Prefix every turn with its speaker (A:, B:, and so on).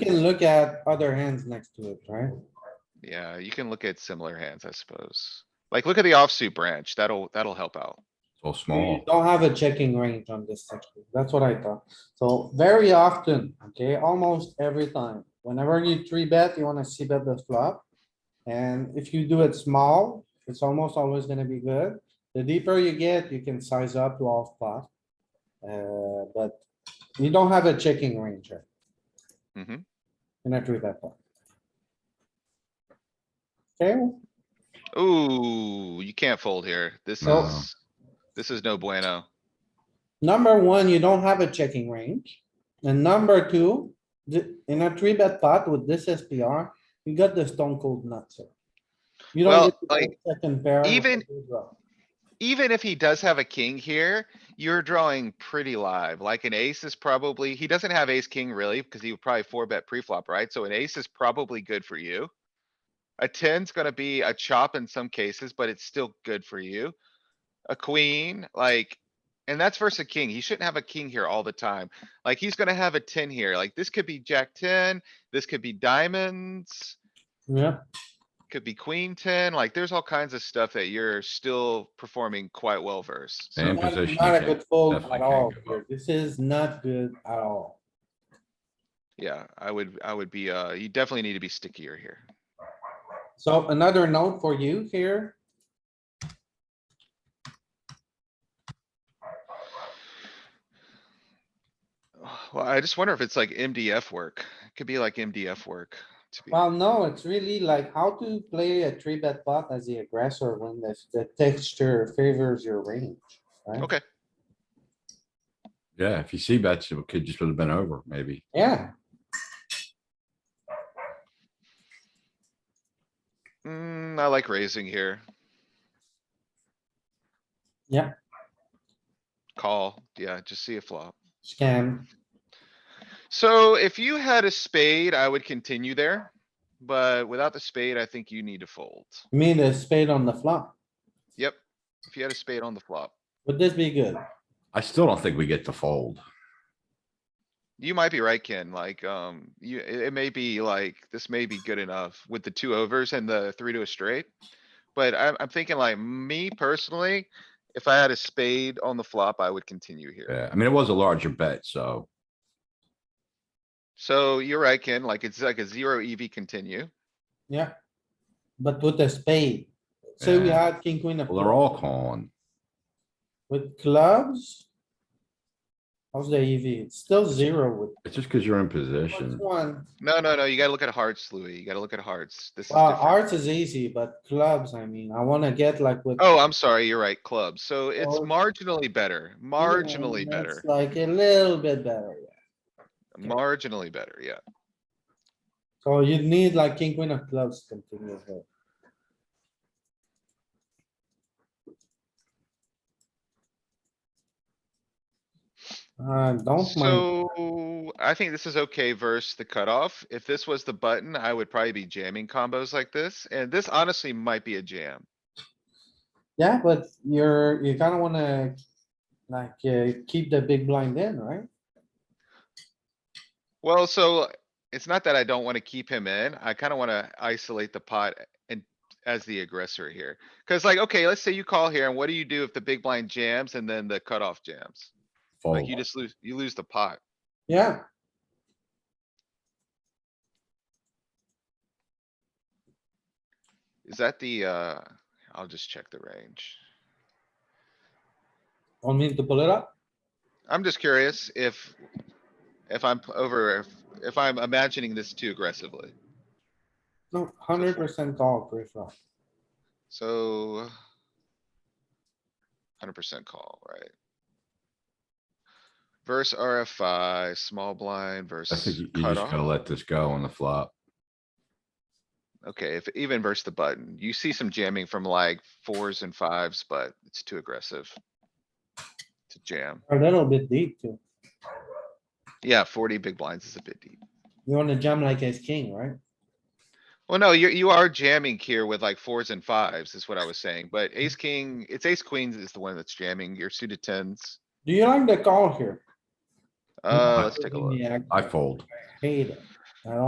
A: You can look at other hands next to it, right?
B: Yeah, you can look at similar hands, I suppose. Like, look at the offsuit branch. That'll, that'll help out.
C: So
A: You
C: small.
A: don't have a checking range on this section. That's what I thought. So very often, okay, almost every time, whenever you three bet, you wanna see bet the flop. And if you do it small, it's almost always gonna be good. The deeper you get, you can size up to all spot. Uh, but you don't have a checking range here.
B: Mhm.
A: And I drew that one. Okay,
B: Ooh, you can't fold here. This
C: No.
B: is, this is no bueno.
A: Number one, you don't have a checking range. And number two, the- in a three bet pot with this SPR, you got the stone cold nuts. here. You
B: Well,
A: don't get to play
B: like,
A: second pair. with
B: even-
A: a good draw.
B: Even if he does have a king here, you're drawing pretty live. Like an ace is probably, he doesn't have ace king really, because he would probably four bet pre-flop, right? So an ace is probably good for you. A ten's gonna be a chop in some cases, but it's still good for you. A queen, like, and that's versus a king. He shouldn't have a king here all the time. Like, he's gonna have a ten here. Like, this could be jack ten, this could be diamonds.
A: Yeah,
B: could be queen ten, like there's all kinds of stuff that you're still performing quite well versus. so-
C: And
A: not
C: position,
A: not
C: you
A: a
C: can't-
A: good fold
C: definitely
A: at
C: can't
A: all.
C: give
A: here.
C: up.
A: This is not good at all.
B: Yeah, I would, I would be, uh, you definitely need to be stickier here.
A: So another note for you here.
B: Well, I just wonder if it's like MDF work. It Could be like MDF work. to be-
A: Well, no, it's really like how to play a three bet pot as the aggressor when the, the texture favors your range. right?
B: Okay,
C: Yeah, if you see bets, it could just would have been over, maybe.
A: Yeah,
B: mm, I like raising here.
A: Yeah.
B: Call, yeah, just see a flop.
A: scam.
B: So if you had a spade, I would continue there. But without the spade, I think you need to fold.
A: Me, the spade on the flop.
B: Yep, if you had a spade on the flop.
A: Would this be good?
C: I still don't think we get to fold.
B: You might be right, Ken. Like, um, you, it, it may be like, this may be good enough with the two overs and the three to a straight. But I'm, I'm thinking like me personally, if I had a spade on the flop, I would continue here.
C: Yeah, I mean, it was a larger bet, so
B: So you're right, Ken. Like, it's like a zero EV continue.
A: Yeah. But with a spade, say we
C: Yeah.
A: had king, queen of
C: well, they're
A: clubs
C: all calling.
A: with clubs. How's the EV? It's still zero with
C: It's just because you're in
A: what's
C: position.
A: one.
B: No, no, no, you gotta look at hearts, Louis. You gotta look at hearts. This is
A: Well,
B: different.
A: hearts is easy, but clubs, I mean, I wanna get like with.
B: Oh, I'm sorry. You're right. Clubs. So it's
A: Oh.
B: marginally better, marginally better,
A: It's Like a little bit better, yeah.
B: marginally better. Yeah.
A: So you need like king, queen of clubs to continue here. Uh, don't mind.
B: So I think this is okay versus the cutoff. If this was the button, I would probably be jamming combos like this, and this honestly might be a jam.
A: Yeah, but you're, you kinda wanna, like, uh, keep the big blind in, right?
B: Well, so it's not that I don't wanna keep him in. I kinda wanna isolate the pot and as the aggressor here. Cuz like, okay, let's say you call here, and what do you do if the big blind jams and then the cutoff jams? Like
A: Oh.
C: Fold.
B: you just lose, you lose the pot.
A: Yeah.
B: Is that the, uh, I'll just check the range.
A: Want me to pull it up?
B: I'm just curious if, if I'm p- over, if, if I'm imagining this too aggressively.
A: No, hundred percent call pre-flop.
B: So. Hundred percent call, right? Verse RFI, small blind
C: I think
B: versus
C: you you just gotta
B: cutoff.
C: let this go on the flop.
B: Okay, if even versus the button, you see some jamming from like fours and fives, but it's too aggressive. To jam.
A: A little bit deep too.
B: Yeah, forty big blinds is a bit deep.
A: You wanna jam like ace king, right?
B: Well, no, you, you are jamming here with like fours and fives is what I was saying, but ace king, it's ace queens is the one that's jamming. Your suited tens.
A: Do you like the call here? Mm-hmm.
B: Uh, let's take a look.
A: Yeah,
C: I fold.
A: hate it.